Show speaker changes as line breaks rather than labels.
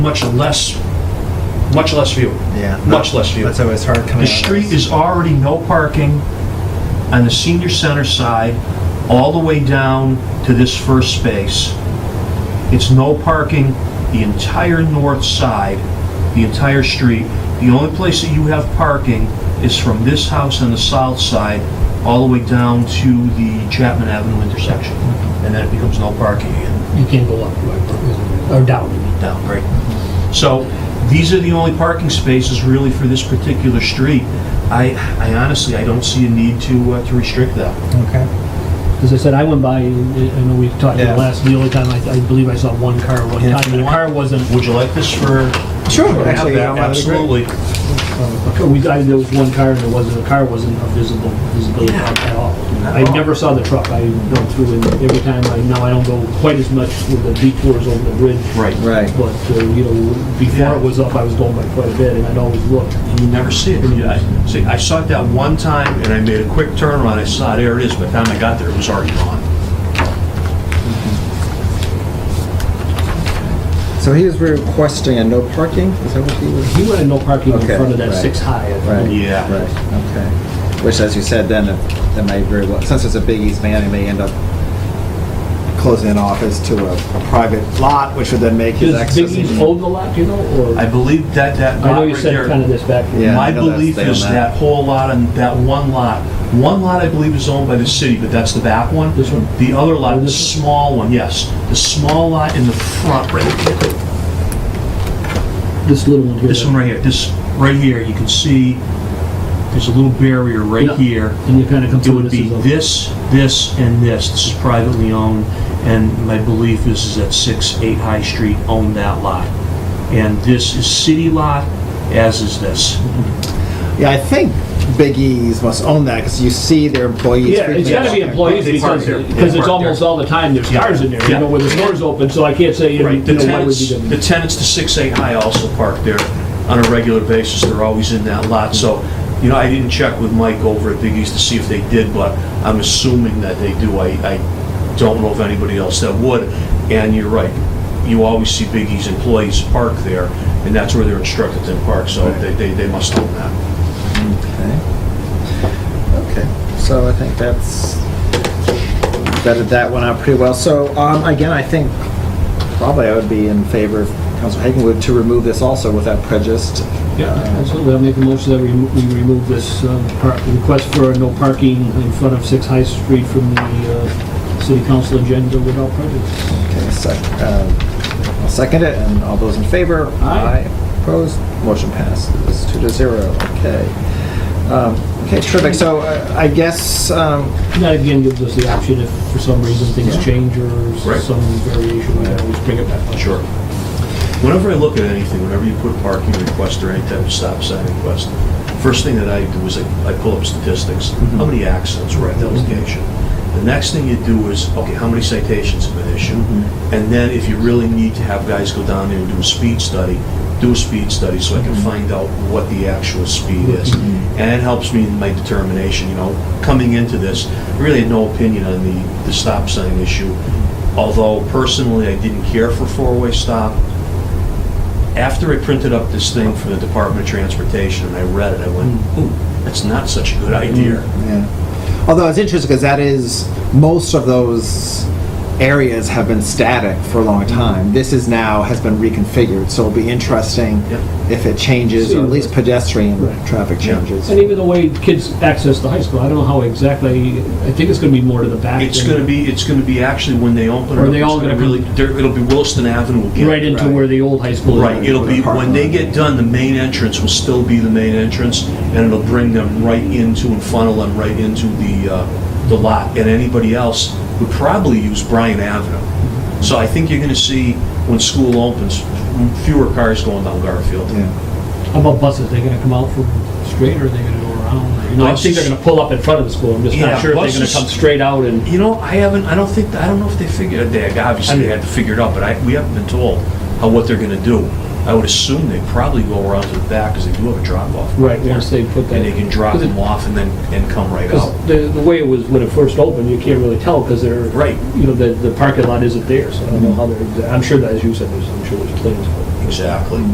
much less, much less view.
Yeah.
Much less view.
That's always hard coming.
The
out of
street
this.
is already no parking on the senior center side, all the way down to this first space. It's no parking the entire north side, the entire street. The only place that you have parking is from this house on the south side, all the way down to the Chapman Avenue intersection. And then it becomes no parking again.
You can't go up, right, or down.
down, right? So these are the only parking spaces really for this particular street. I, I honestly, I don't see a need to, uh, to restrict that.
Okay.
As I said, I went by, and I know we've talked in the
Yeah.
last, the only time, I I believe I saw one car one
Yeah.
time. and The car wasn't,
Would you like this for?
Sure. Actually, yeah, that'd be great.
Absolutely.
we, I, there was one car, and there wasn't, the car wasn't a visible, visibility at at all. I never saw the truck, I went through, and every time, I, now I don't go quite as much with the detours over the bridge.
Right.
Right.
But, uh, you know, before
Yeah.
it was up, I was going by quite a bit, and I'd always look.
You never see it. Yeah, I- See, I saw it that one time and I made a quick turnaround. I saw, there it is, by the time I got there, it was already gone.
So he was requesting a no parking? Is that what he was?
He wanted no parking in
Okay,
front of that
right.
six high. I think.
Right.
Yeah.
Right, okay. Which, as you said, then, it- that may very well, since it's a big easement, it may end up closing an office to a a private lot, which would then make his
Does
access.
Biggie's
even-
own the lot, you know, or?
I believe that, that
I know
lot
you
right
said kind
there.
of this back.
Yeah, I
My
know that's-
belief
they own
is
that.
that whole lot and that one lot, one lot I believe is owned by the city, but that's the back one.
This one?
The other lot, the
This
small one, yes. The small lot in the front, right,
This little one here.
this one right here, this, right here, you can see, there's a little barrier right
Yeah.
here.
And you kind of come
It
to
would
this
be
as a.
this, this, and this. This is privately owned, and my belief is is that 6, 8 High Street owned that lot. And this is city lot, as is this.
Yeah, I think Big E's must own that, because you see their employees.
Yeah, it's
frequently
gotta be
walking.
employees
They park
because,
there.
because
They
it's
park
almost
there.
all the time there's
Yeah.
cars in there, you
Yeah.
know, where the store's open, so I can't say, you
Right, the
know, why would
tenants,
you?
the tenants to 6A High also park there on a regular basis, they're always in that lot, so, you know, I didn't check with Mike over at Big East to see if they did, but I'm assuming that they do, I, I don't know of anybody else that would, and you're right, you always see Big East employees park there, and that's where they're instructed to park, so they, they they must own that.
Okay, Eh? Okay. so I think that's, vetted that one out pretty well. So, um, again, I think probably I would be in favor of Council Hagenwood to remove this also without prejudice.
Yeah, absolutely, I'll make a motion that we remo- we remove this um, par- request for no parking in front of 6 High Street from the uh, city council agenda without prejudice.
Okay, sec, uh, I'll second it, and all those in favor?
Aye.
Opposed? Motion passes two to zero, okay. Um, Okay, terrific, so uh, I guess, um,
And That again gives us the option if for some reason things
Yeah.
change or
Right.
some variation, we can always bring it back. up.
Sure. Whenever I look at anything, whenever you put parking request or any type of stop sign request, first thing that I do is I I pull up statistics. How many accidents were at that location? The next thing you do is, okay, how many citations have been issued? And then if you really need to have guys go down there and do a speed study, do a speed study so I can find out what the actual speed is. And it helps me in my determination, you know, coming into this, I really had no opinion on the, the stop sign issue. Although personally, I didn't care for four-way stop, after I printed up this thing for the Department of Transportation and I read it, I went,
Hmm.
ooh, that's not such a good idea.
yeah, although it's interesting, because that is, most of those areas have been static for a long
Mm-hmm.
time. This is now, has been reconfigured, so it'll be interesting
Yep.
if it changes, or at least pedestrian
Right.
traffic
Yeah.
changes.
And even the way kids access the high school, I don't know how exactly, I think it's gonna be more to the back.
It's
than-
gonna be, it's gonna be actually when they open it
Are
up.
they
it's
all gonna
really, there- it'll be Williston Avenue again.
Right into
Right.
where the old high school is.
Right, it'll be,
Park
when they
lot.
get done, the main entrance will still be the main entrance and it'll bring them right into and funnel them right into the, uh, the lot. And anybody else would probably use Bryan Avenue. So I think you're gonna see, when school opens, fewer cars going down Garfield.
Yeah,
How about buses, they gonna come out from straight or are they gonna go around? You know, I think they're gonna pull up in front of the school, I'm just
Yeah,
not sure if they're
buses-
gonna come straight out and,
You know, I haven't, I don't think, I don't know if they figured, uh, they, obviously they had to figure it out, but I, we haven't been told how, what they're gonna do. I would assume they probably go around to the back, because they do have a drop-off.
right, once they put that.
And they can drop them off and then, and come right
Because
out.
the, the way it was when it first opened, you can't really tell because they're.
Right.
You know, the, the parking lot isn't there, so I don't know how they're, exa- I'm sure that, as you said, there's, I'm sure there's plans.
Exactly.